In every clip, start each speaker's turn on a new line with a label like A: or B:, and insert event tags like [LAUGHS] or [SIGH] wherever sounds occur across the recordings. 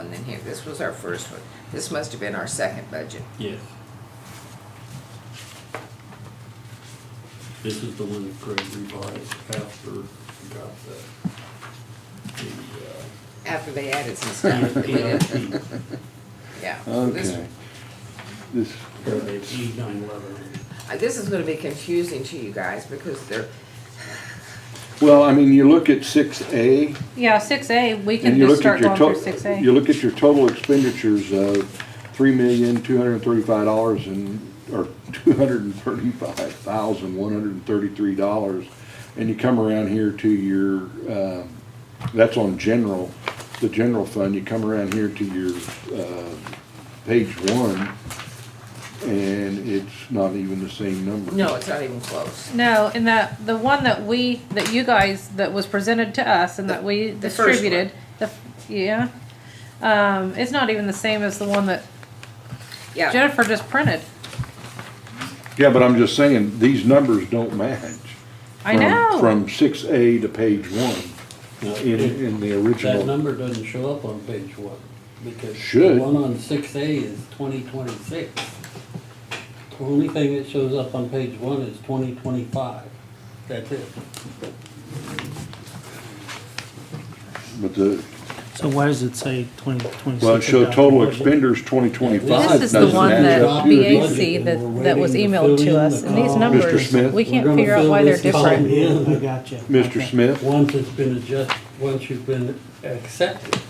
A: in here. This was our first one. This must have been our second budget.
B: Yes. This is the one that Craig revised after we got the,
A: After they added some [LAUGHS] stuff.
C: [LAUGHS]
A: that we
B: the, uh,
A: didn't-
B: EIP,
A: Yeah. so this-
C: Okay. This,
B: or the E nine eleven.
A: uh, This is gonna be confusing to you guys because they're,
C: well, I mean, you look at six A,
D: Yeah, six A, we
C: and
D: can
C: you
D: just
C: look at
D: start
C: your
D: going through six
C: total, you
D: A.
C: look at your total expenditures of three million, two hundred and thirty-five dollars and, or [LAUGHS] two hundred and thirty-five thousand, one hundred and thirty-three dollars. And you come around here to your, um, that's on general, the general fund, you come around here to your, uh, page one, and it's not even the same number.
A: no, it's not even close.
D: No, and that, the one that we, that you guys, that was presented to us and that we
A: The first one.
D: distributed, the, yeah. Um, it's not even the same as the one that
A: Yeah,
D: Jennifer just printed.
C: Yeah, but I'm just saying, these numbers don't match.
D: I
C: from-
D: know.
C: From six A to page one,
B: Now,
C: in,
B: it-
C: in the
B: that
C: original.
B: number doesn't show up on page one, because the
C: Should.
B: one on six A is twenty twenty-six. The Only thing that shows up on page one is twenty twenty-five, that's it.
C: But the,
E: So why does it say twenty, twenty-six?
C: well, it showed total
E: expense.
C: expenders twenty twenty-five.
D: This is the one that BAC that, that was emailed to us, and these
B: Mr.
D: numbers,
C: Smith?
D: we
B: We're
D: can't
B: gonna
D: figure out
B: fill
D: why they're
B: this column
D: different.
B: in
E: I gotcha.
C: Mr.
E: Okay.
C: Smith,
B: Once it's been adjusted, once you've been accepted,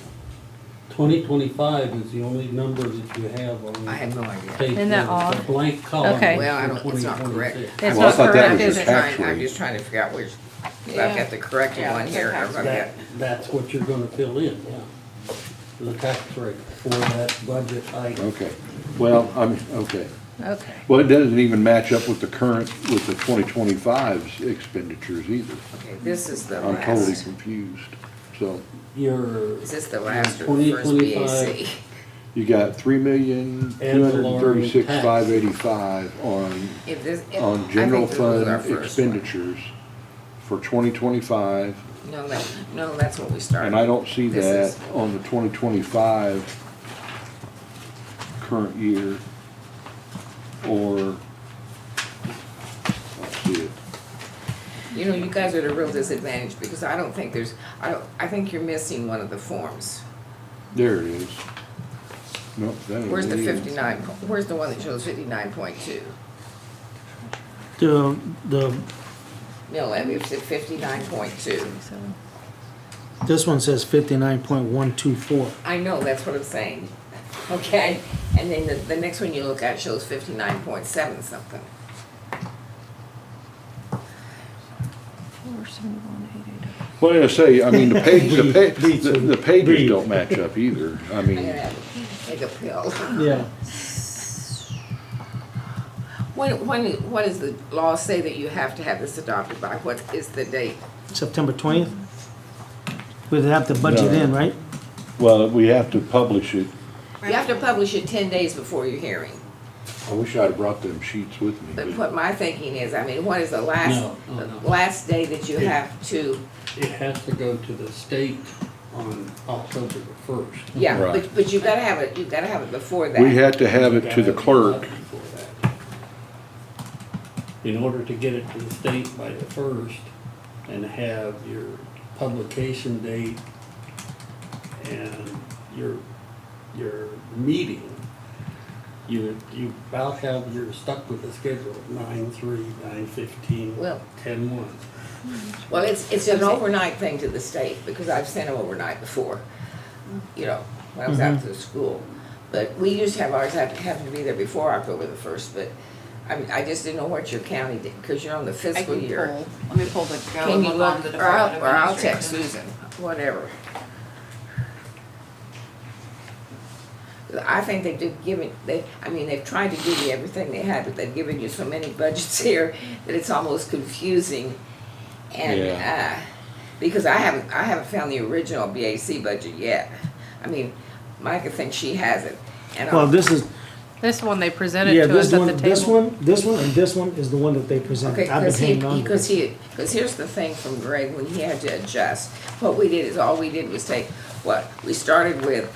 B: twenty twenty-five is the only number that you have on.
A: I have no idea.
B: page
D: Isn't that
B: one. It's a
D: odd?
B: Blank column.
D: Okay.
A: Well, I don't- it's not
B: 2026.
A: correct.
D: It's
C: Well, I
D: not
C: thought that
D: correct,
A: I'm
C: was
D: is
A: just
C: his
D: it?
A: trying, I'm
C: actually-
A: just trying to figure out which, if I've
D: Yeah.
A: got the correct
D: Yeah,
A: one here.
D: that's
A: I've
B: That,
A: got-
B: that's what you're gonna fill in, yeah. The tax rate for that budget item.
C: okay, well, I'm, okay.
D: Okay.
C: Well, it doesn't even match up with the current, with the twenty twenty-five's expenditures either.
A: Okay, this is the
C: I'm totally
A: last.
C: confused. So
B: Your
A: Is this the last or the
B: Twenty,
A: first
B: twenty-five.
A: BAC?
C: you got three million, two hundred and thirty-six, five eighty-five on
A: [LAUGHS] If this- if- I
C: on
A: think
C: general
A: this was our
C: fund
A: first one.
C: expenditures for twenty twenty-five,
A: No, that, no, that's what we started.
C: and I don't see
A: This
C: that
A: is-
C: on the twenty twenty-five current year, or, I see it.
A: You know, you guys are at a real disadvantage because I don't think there's, I don't, I think you're missing one of the forms.
C: There it is. Nope, that ain't
A: Where's the
C: it either.
A: fifty-nine, po- where's the one that shows fifty-nine point two?
E: The, the,
A: No, levy it's at fifty-nine point two.
E: this one says fifty-nine point one two four.
A: I know, that's what I'm saying. [LAUGHS] Okay, and then the, the next one you look at shows fifty-nine point seven something.
C: Well, I say, I mean, [LAUGHS] the page, the pa,
E: Me
C: the-
E: too.
C: the pages
E: Me.
C: don't match up either,
A: [LAUGHS]
C: I
A: I'm gonna
C: mean,
A: have to take a pill. [LAUGHS]
E: Yeah.
A: When, when, what does the law say that you have to have this adopted by? What is the date?
E: September twentieth? We'd have to budget in, right?
C: well, we have to publish it.
A: You have to publish it ten days before your hearing.
C: I wish I'd brought them sheets with me.
A: But
C: but-
A: what my thinking is, I mean, what is the last,
B: No, no, no.
A: the last day that you have to,
B: It has to go to the state on October the first.
A: yeah,
C: Right.
A: but, but you gotta have it, you gotta have it before that.
C: We had to have it to the clerk.
B: In order to get it to the state by the first and have your publication date and your, your meeting, you, you about have, you're stuck with the schedule, nine, three, nine, fifteen,
A: Well-
B: ten, one.
A: Well, it's, it's an overnight thing to the state, because I've sent them overnight before, you know, when I was
B: Mm-hmm.
A: out to the school. But we used to have ours, have, have to be there before October the first, but I, mean, I just didn't know what your county did, because you're on the
F: I
A: fiscal
F: can
A: year.
F: pull, let me pull the go
A: Can you
F: look on the
A: look, or I'll,
F: Department
A: or I'll
F: of
A: text
F: Administration.
A: Susan, whatever. I think they did give it, they, I mean, they've tried to give you everything they had, but they've given you so many budgets [LAUGHS] here that it's almost confusing. And, uh, because I haven't, I haven't found the original BAC budget yet. I mean, Micah thinks she has it. and I'll-
E: Well, this is,
D: This one they presented
E: yeah,
D: to
E: this
D: us at the
E: one, this
D: table.
E: one, this one, and this one is the one that they
A: Okay,
E: presented. I've been
A: because he,
E: hanging on to
A: because
E: this.
A: he, because here's the thing from Greg, when he had to adjust, what we did is, all we did was take, what, we started with